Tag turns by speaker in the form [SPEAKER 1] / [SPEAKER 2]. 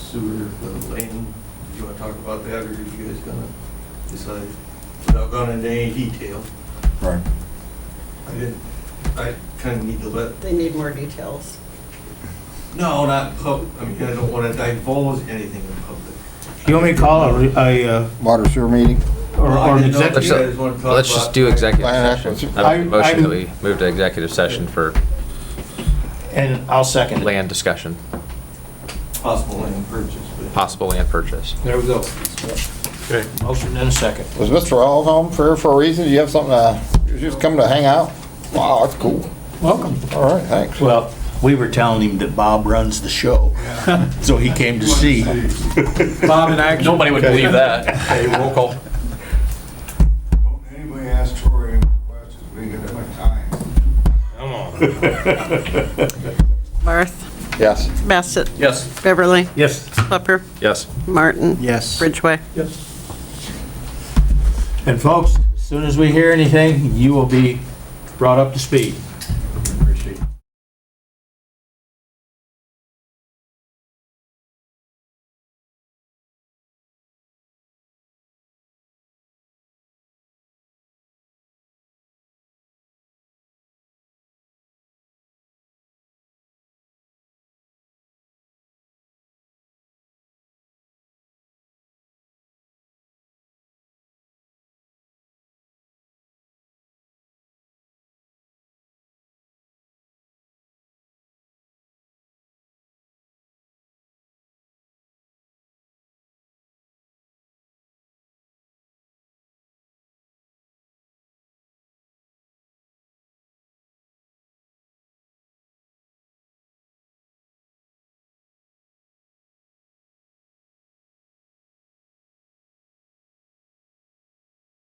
[SPEAKER 1] sewer, the lane, you wanna talk about that, or are you guys gonna decide? Without going into any detail,
[SPEAKER 2] Right.
[SPEAKER 1] I didn't, I kinda need to let,
[SPEAKER 3] They need more details.
[SPEAKER 1] no, not pub, I mean, I don't wanna divulge anything in public.
[SPEAKER 4] You want me to call a, re- a, uh,
[SPEAKER 2] Water sewer meeting?
[SPEAKER 4] or
[SPEAKER 1] Well, I
[SPEAKER 4] or an
[SPEAKER 1] didn't know if
[SPEAKER 4] executive?
[SPEAKER 1] you guys wanna talk
[SPEAKER 5] Let's just
[SPEAKER 1] about-
[SPEAKER 5] do executive
[SPEAKER 2] Plan
[SPEAKER 5] session.
[SPEAKER 2] actions.
[SPEAKER 5] I make a
[SPEAKER 4] I-
[SPEAKER 5] motion that
[SPEAKER 4] I'm-
[SPEAKER 5] we move to executive session for
[SPEAKER 4] And I'll second it.
[SPEAKER 5] land discussion,
[SPEAKER 1] Possible land purchase, but.
[SPEAKER 5] possible land purchase.
[SPEAKER 4] There we go.
[SPEAKER 5] Okay.
[SPEAKER 4] Motion and a second.
[SPEAKER 2] Was Mr. Hall home for, for a reason? Did you have something to, you just come to hang out? Wow, that's cool.
[SPEAKER 4] Welcome.
[SPEAKER 2] All right, thanks.
[SPEAKER 6] Well, we were telling him that Bob runs the show, so he came to see.
[SPEAKER 4] Bob and I.
[SPEAKER 5] Nobody would believe that. Hey, roll call.
[SPEAKER 7] Anybody ask Tori any questions, we can have my time.
[SPEAKER 3] Barth,
[SPEAKER 2] Yes.
[SPEAKER 3] Bassett,
[SPEAKER 5] Yes.
[SPEAKER 3] Beverly,
[SPEAKER 4] Yes.
[SPEAKER 3] Klepper,
[SPEAKER 5] Yes.
[SPEAKER 3] Martin.
[SPEAKER 6] Yes.
[SPEAKER 3] Ridgway.
[SPEAKER 4] Yes. And folks, as soon as we hear anything, you will be brought up to speed.